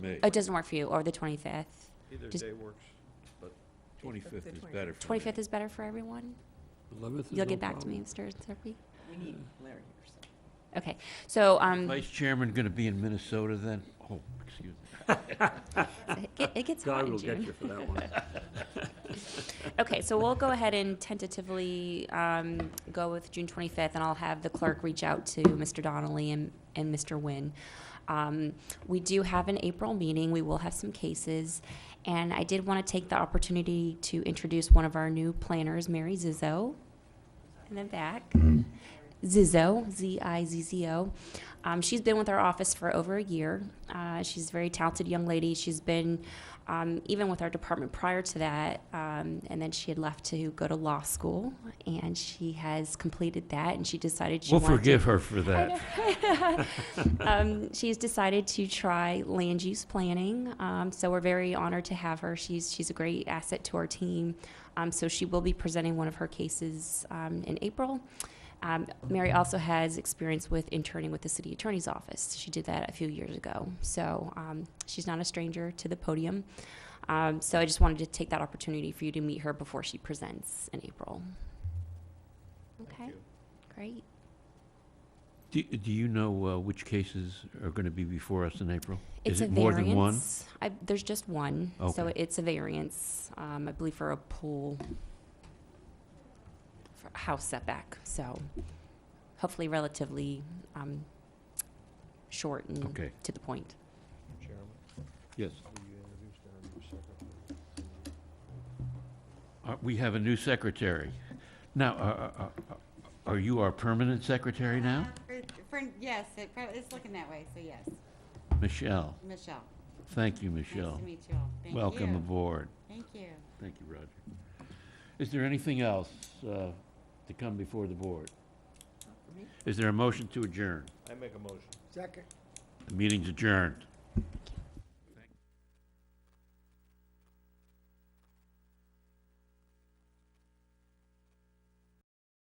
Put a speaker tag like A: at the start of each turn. A: May.
B: Oh, It doesn't work for you, or the 25th?
C: Either
B: Just-
C: day works, but
A: Twenty-fifth is
D: The
A: better for me.
B: 25th is better for everyone?
E: Eleventh is
B: You'll
E: no
B: get back to me,
E: problem.
B: Mr. Serpy?
D: We need Larry here, so.
B: Okay, so, um,
A: Vice Chairman gonna be in Minnesota then? Oh, excuse me.
B: it get- it gets hot
E: God
B: in
E: will get you
B: June.
E: for that one.
B: Okay, so we'll go ahead and tentatively, um, go with June 25th, and I'll have the clerk reach out to Mr. Donnelly and, and Mr. Nguyen. Um, we do have an April meeting, we will have some cases, and I did want to take the opportunity to introduce one of our new planners, Mary Zizzo, in the back.
E: Mm-hmm.
B: Zizzo, Z I Z Z O. Um, she's been with our office for over a year. Uh, she's a very talented young lady. She's been um, even with our department prior to that, um, and then she had left to go to law school, and she has completed that, and she decided she
E: We'll
B: wanted to-
E: forgive her for that.
B: um, she's decided to try land use planning. Um, so we're very honored to have her. She's she's a great asset to our team. Um, so she will be presenting one of her cases um, in April. Um, Mary also has experience with interning with the city attorney's office. She did that a few years ago. So um, she's not a stranger to the podium. Um, so I just wanted to take that opportunity for you to meet her before she presents in April. Okay,
C: you.
B: great.
A: Do, do you know uh, which cases are gonna be before us in April?
B: It's
A: Is
B: a
A: it more than one?
B: variance. I, there's just one, so
A: Okay.
B: it's a variance, um, I believe for a pool, for a house setback, so hopefully relatively, um, short and
A: Okay.
B: to the point.
C: Chairman,
A: Yes.
C: will you introduce our new secretary?
A: Uh, We have a new secretary. Now, uh, are- are- are- are you our permanent secretary now?
F: For- for- yes, it, prob- it's looking that way, so yes.
A: Michelle.
F: Michelle,
A: Thank you,
F: nice
A: Michelle.
F: to meet you all. Thank
A: Welcome
F: you.
A: aboard.
F: Thank you.
A: Thank you, Roger. Is there anything else uh, to come before the board?
D: me.
A: Is there a motion to adjourn?
C: I make a motion.
D: Second.
A: The meeting's adjourned.
B: Thank you.